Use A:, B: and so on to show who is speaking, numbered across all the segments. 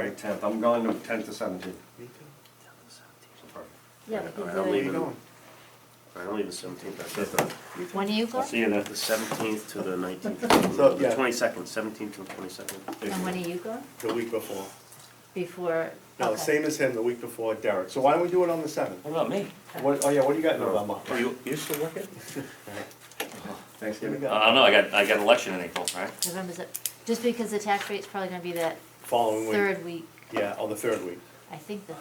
A: tenth, I'm going to tenth to seventeenth. So perfect.
B: Yeah,
A: All right,
B: because
A: I'm
B: you're-
A: leaving. All right, I'm leaving seventeenth, I said that.
B: When are you
A: I'll
B: going?
A: see you there. The seventeenth to the nineteenth,
C: So, yeah.
A: the twenty-second, seventeenth to the twenty-second.
B: And when are you going?
C: The week before.
B: Before?
C: No,
B: okay.
C: same as him, the week before Derek. So why don't we do it on the seventh?
D: What about me?
C: What, oh yeah, what do you got in November?
D: Are you, you still working?
C: Here we
A: Thanksgiving?
C: go.
D: Uh, I don't know, I got, I got an election in April, right?
B: November's it, just because the tax rate's probably gonna be that
C: Following week.
B: third week,
C: Yeah, on the third week.
B: I think the.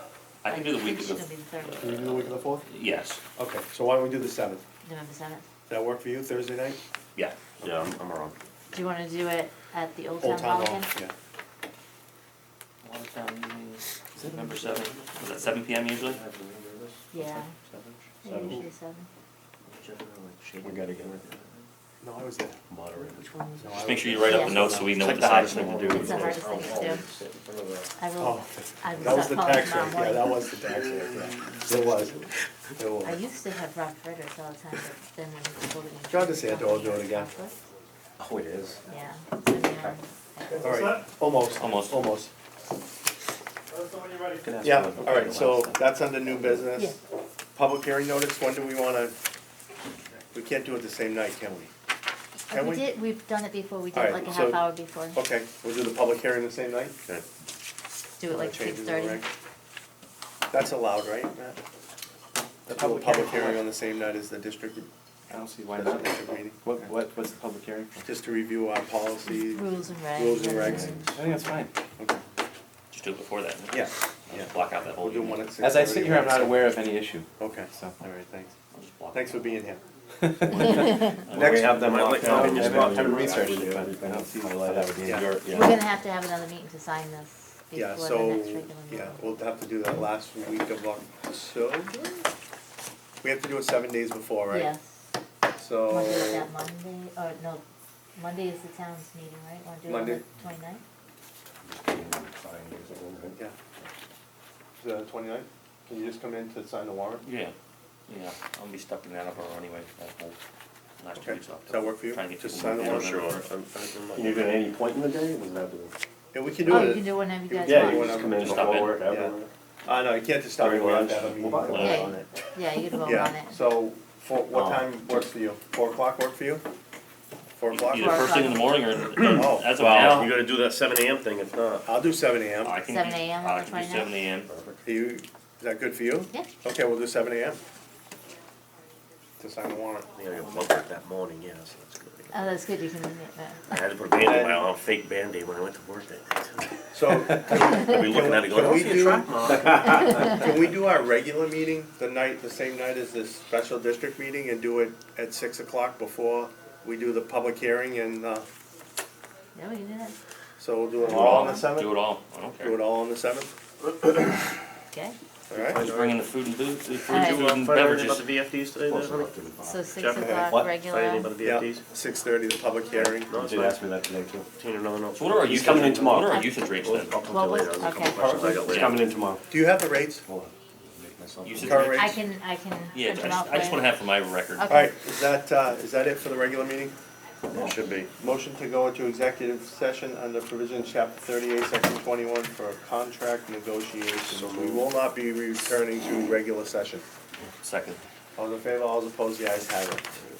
D: I can do the
B: think
D: week
B: It's
D: of
B: gonna be
D: the,
B: the
D: uh,
B: third, week,
C: Can you do the week of the fourth?
D: yes,
C: Okay, so why don't we do the seventh?
B: November seventh.
C: Does that work for you, Thursday night?
D: yeah.
A: Yeah, I'm, I'm around.
B: Do you wanna do it at the Old
C: Old
B: Town Hall
C: Town Hall,
B: again?
C: yeah.
D: November seventh, was that seven PM usually?
B: Yeah, yeah,
A: Seven.
B: usually seven.
A: We gotta get it
C: No, I was there.
A: moderated.
C: No, I
D: Just
C: was
D: make sure you
C: there.
D: write up the
B: Yeah.
D: notes so we know
A: It's
D: what
A: like
D: the
A: the
D: size
A: hardest
D: of
A: thing to do.
B: It's the hardest thing to do. I will,
C: Oh,
B: I will
C: That was
B: start
C: the
B: calling
C: tax
B: tomorrow
C: rate, yeah, that
B: morning.
C: was the tax rate, yeah. It was, it
B: I
C: was.
B: used to have Rob Fredericks all the time, but then when he told me.
C: John DeSanto will do it again.
A: Oh, it is.
B: Yeah. so now-
C: All right, almost,
D: Almost.
C: almost, almost.
D: Can ask
C: Yeah,
D: for the-
C: all right, so
D: the
C: that's under new business.
B: Yeah.
C: Public hearing notice, when do we wanna, we can't do it the same night, can we?
B: And
C: Can
B: we
C: we?
B: did, we've done it before, we did
C: All
B: it
C: right,
B: like a
C: so-
B: half hour before,
C: Okay, we'll do the public hearing the same night?
A: Okay.
B: do it like six
C: Changes,
B: thirty.
C: all right. That's allowed, right, Matt? The
E: public
C: public
E: hearing.
C: hearing on the same night as the district,
E: I don't see why
C: the
E: not.
C: district meeting,
E: What, what, what's the public hearing for?
C: just to review our policy.
B: Rules and regs.
C: Rules and regs.
E: I think that's fine.
C: Okay.
D: Just do it before that.
C: Yeah,
D: I'll
C: yeah.
D: just Block out that whole
C: We'll do
D: evening.
C: one at six.
E: As I sit here, I'm not aware of any issue,
C: Okay,
E: so.
C: all right, thanks.
D: I'll just block
C: Thanks
D: it
C: for
D: out.
C: being here.
A: Well, we
C: Next-
A: have them
D: Might
A: locked
D: like-
A: down.
D: I'll just
E: I haven't researched it, but I don't see why that would be.
C: Yeah.
E: any-
B: We're gonna have to have another meeting to sign this
C: Yeah,
B: before the
C: so,
B: next regular
C: yeah,
B: meeting.
C: we'll have to do that last week of October. We have to do it seven days before, right?
B: Yes,
C: So.
B: wanna do it that Monday, or no, Monday is the town's meeting, right? Wanna do it on the
C: Monday.
B: twenty-ninth?
C: Yeah. Is that twenty-nine? Can you just come in to sign the warrant?
D: Yeah, yeah, I'll be stuck in Attleboro anyway, for that whole last two
C: Okay,
D: weeks off.
C: does that work for you?
D: Trying to get
C: Just
D: people
C: sign the
D: moving.
C: warrant?
D: Yeah,
A: Sure. I'm- I'm- Can you do it at any point in the day? Does it have to be?
C: Yeah, we can do
B: Oh, you can
C: it.
B: do whenever you guys
C: Yeah,
A: Yeah,
C: you
A: you
B: want.
C: wanna
A: just come in,
D: stop
A: before
D: in.
A: work,
C: Yeah.
A: after work.
C: Uh, no, you can't just stop
A: During
C: me.
A: lunch.
C: That would be-
A: We'll buy one.
B: Yeah,
C: on
B: you-
C: it.
B: Yeah, you can vote on
C: Yeah,
B: it.
C: so, for, what
A: Oh.
C: time works for you? Four o'clock work for you? Four o'clock?
D: Either first thing in the morning or
C: Oh,
D: as of
A: Well,
D: now.
A: you gotta do that seven AM thing, if not.
C: I'll do seven AM.
D: Oh, I can do-
B: 7 a.m. on the
D: I can do
B: 29th?
D: seven AM.
C: Are you, is that good for you?
B: Yeah,
C: Okay, we'll do seven AM. To sign the warrant.
A: Yeah, I got bug out that morning, yeah, so that's good.
B: oh, that's good, you can, yeah.
A: I had to put a Band-Aid, my own fake Band-Aid when I went to work that day.
C: So,
A: I'd be looking at it going,
C: Can
A: I
C: we
A: see
C: do-
A: a track mark.
C: Can we do our regular meeting the night, the same night as this special district meeting and do it at six o'clock before we do the public hearing and, uh,
B: yeah, we can do that,
C: so we'll do it all on the
D: Do
C: seventh?
D: it all, I don't
C: Do it
D: care.
C: all on the seventh,
B: okay?
C: alright?
D: Just bring in the food and booze, the food
B: Alright.
D: food and
A: Find out anything about
D: beverages.
A: the VFDs today,
E: Close
A: then?
E: enough to the bottom.
B: So six
A: Jeff,
B: o'clock
E: what?
A: Find anything
B: regular,
A: about the
C: Yeah,
A: VFDs?
C: six thirty, the public hearing.
A: No,
E: You
A: it's
E: did
A: not.
E: ask me that today too.
A: Tina, no, no.
D: So what are our usage,
E: coming in
D: rates- what
E: tomorrow.
D: are our usage rates
A: I'll-
D: then?
A: I'll come
B: Well,
A: to you later.
B: we'll-
A: There's a couple
B: okay.
A: questions I got
E: It's
A: later.
E: coming in tomorrow.
C: Do you have the rates?
E: Hold on. Make myself-
D: Usage
C: Current
D: rates?
C: rate.
B: I can, I can
D: Yeah,
B: print
D: I
B: them
D: just,
B: out
D: I just
B: for
D: wanna
B: you.
D: have for my record.
B: Okay.
C: Alright, is that, uh, is that it for the regular meeting?
A: It should be.
C: Motion to go into executive session under provision chapter thirty-eight, section twenty-one for contract negotiations. We will not be returning to regular session.
D: Second.
C: All in favor, all opposed, the ayes have it.